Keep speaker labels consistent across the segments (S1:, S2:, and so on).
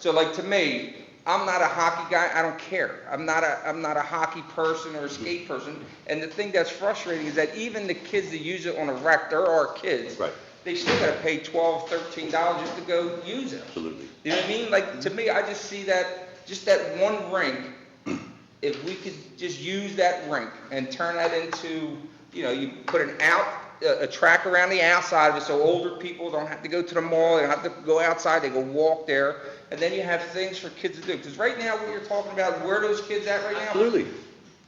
S1: So like to me, I'm not a hockey guy, I don't care. I'm not a, I'm not a hockey person or a skate person. And the thing that's frustrating is that even the kids that use it on a rec, there are kids.
S2: Right.
S1: They still gotta pay twelve, thirteen dollars just to go use it.
S2: Absolutely.
S1: You know what I mean? Like, to me, I just see that, just that one rink, if we could just use that rink and turn that into, you know, you put an out, a, a track around the outside of it, so older people don't have to go to the mall, they don't have to go outside, they can walk there, and then you have things for kids to do, because right now, what you're talking about, where are those kids at right now?
S2: Absolutely.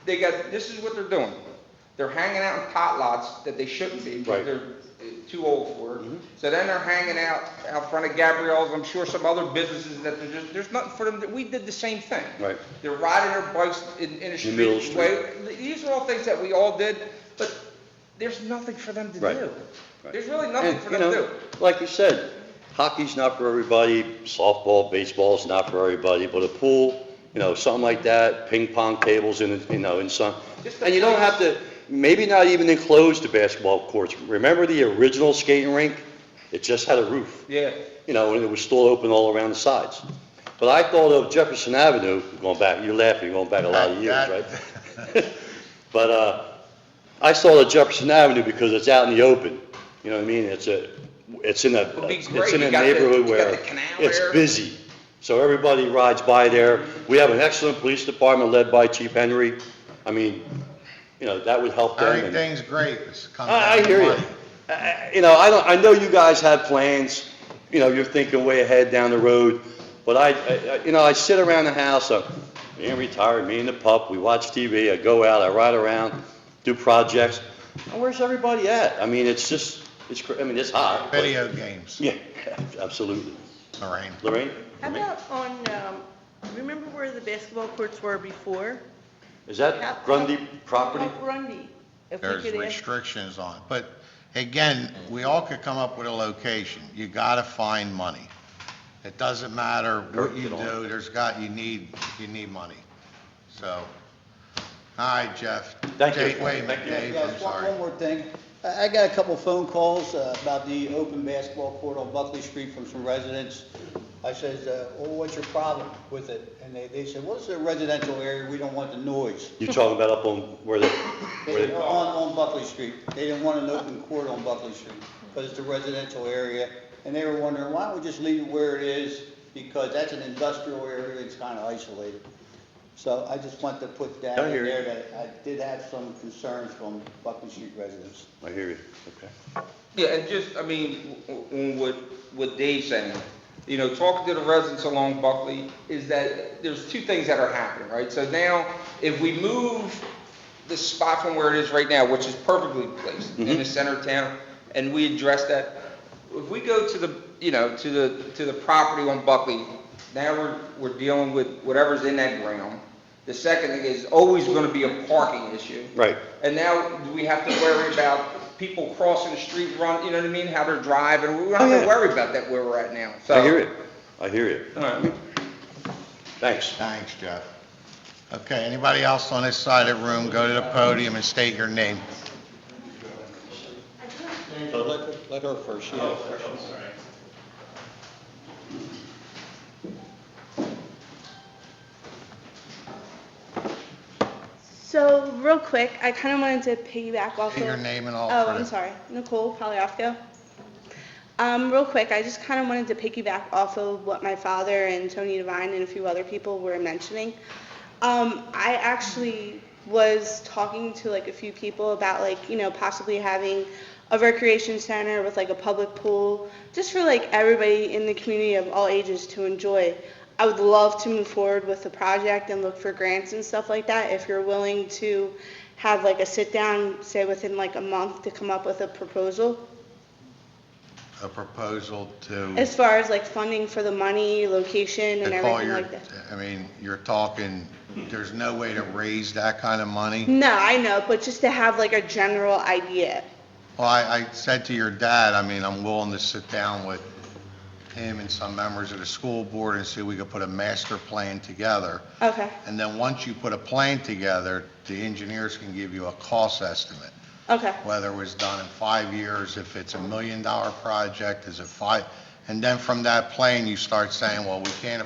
S1: They got, this is what they're doing, they're hanging out in pot lots that they shouldn't be, because
S2: Right. Mm-hmm.
S1: they're uh, too old for it. So then they're hanging out, out front of Gabrielle's, I'm sure some other businesses that there's, just- there's nothing for them, to- we did the same thing.
S2: Right.
S1: They're riding their bikes in, in a
S2: In Middle
S1: street way, these are all things that we all did, but there's nothing for them to
S2: Right.
S1: do.
S2: Right.
S1: There's really nothing
S2: And,
S1: for
S2: you
S1: them to
S2: know,
S1: do.
S2: Like you said, hockey's not for everybody, softball, baseball's not for everybody, but a pool, you know, something like that, ping pong tables in, you know, in some,
S1: Just a
S2: and you don't
S1: place-
S2: have to, maybe not even enclose the basketball courts. Remember the original skating rink? It just had a roof,
S1: Yeah,
S2: you know, and it was still open all around the sides. But I thought of Jefferson Avenue, going back, you're laughing, you're going back a lot of years,
S3: That-
S2: right? But, uh, I saw the Jefferson Avenue because it's out in the open, you know what I mean? It's a, it's in a,
S1: Would be great.
S2: it's in
S1: You
S2: a
S1: got the- you
S2: neighborhood
S1: got
S2: where
S1: the canal
S2: it's
S1: there.
S2: busy. So everybody rides by there. We have an excellent police department led by Chief Henry. I mean, you know, that would help them. and-
S3: Everything's great, it's come
S2: I, I
S3: down to
S2: hear you.
S3: money.
S2: I- I- You know, I don't, I know you guys have plans, you know, you're thinking way ahead down the road, but I, I- I- you know, I sit around the house, I'm, me and retired, me and the pup, we watch TV, I go out, I ride around, do projects. And where's everybody at? I mean, it's just, it's, cr- I mean, it's hot. but-
S3: Video games,
S2: Yeah, absolutely.
S3: Lorraine.
S2: Lorraine?
S4: How about on, um, remember where the basketball courts were before?
S2: Is
S4: How-
S2: that Grundy property?
S5: Oh,
S4: How- Grundy, if we
S3: There's
S4: could ask.
S3: restrictions on it, but again, we all could come up with a location. You gotta find money. It doesn't matter what you do, there's got, you need, you need money. So, all right, Jeff.
S2: Thank you.
S3: Dave, Wait a minute,
S2: Thank you.
S3: Dave,
S6: Yeah,
S3: I'm
S6: just one
S3: sorry.
S6: one more thing. I I got a couple phone calls uh, about the open basketball court on Buckley Street from some residents. I says, uh, well, what's your problem with it? And they, they said, well, it's a residential area, we don't want the noise.
S2: You talking about up on where the,
S6: They
S2: where
S6: said,
S2: the,
S6: On, on Buckley Street. They didn't want an open court on Buckley Street because it's a residential area. And they were wondering, why don't we just leave it where it is? Because that's an industrial area, it's kind of isolated. So I just want to put that
S2: I
S6: in
S2: hear you.
S6: there that I did have some concerns from Buckley Street residents.
S2: I hear you, okay.
S1: yeah, and just, I mean, w- w- what, what Dave's saying, you know, talking to the residents along Buckley, is that there's two things that are happening, right? So now, if we move the spot from where it is right now, which is perfectly placed in the center of town, and we address that. If we go to the, you know, to the, to the property on Buckley, now we're, we're dealing with whatever's in that ground. The second thing is always gonna be a parking issue.
S2: Right.
S1: And now we have to worry about people crossing the street, run, you know what I mean, how they're driving, we don't
S2: Oh,
S1: have
S2: yeah.
S1: to worry about that where we're at now, so.
S2: I hear it, I hear it.
S1: All right.
S2: Thanks.
S3: Thanks, Jeff. Okay, anybody else on this side of the room, go to the podium and state your name.
S6: Let, let her first, yeah.
S5: So, real quick, I kind of wanted to piggyback off
S3: State
S5: of.
S3: your name and all.
S5: Oh,
S3: for
S5: I'm
S3: the-
S5: sorry, Nicole Polyafco. Um, real quick, I just kind of wanted to piggyback off of what my father and Tony Devine and a few other people were mentioning. Um, I actually was talking to like a few people about like, you know, possibly having a recreation center with like a public pool, just for like everybody in the community of all ages to enjoy. I would love to move forward with the project and look for grants and stuff like that if you're willing to have like a sit down, say within like a month to come up with a proposal.
S3: A proposal to.
S5: As far as like funding for the money, location and
S3: They call
S5: everything
S3: your-
S5: like that.
S3: I mean, you're talking, there's no way to raise that kind of money.
S5: No, I know, but just to have like a general idea.
S3: Well, I, I said to your dad, I mean, I'm willing to sit down with him and some members of the school board and see if we could put a master plan together.
S5: Okay,
S3: And then once you put a plan together, the engineers can give you a cost estimate,
S5: okay,
S3: whether it was done in five years, if it's a million dollar project, is it five? And then from that plan, you start saying, well, we can't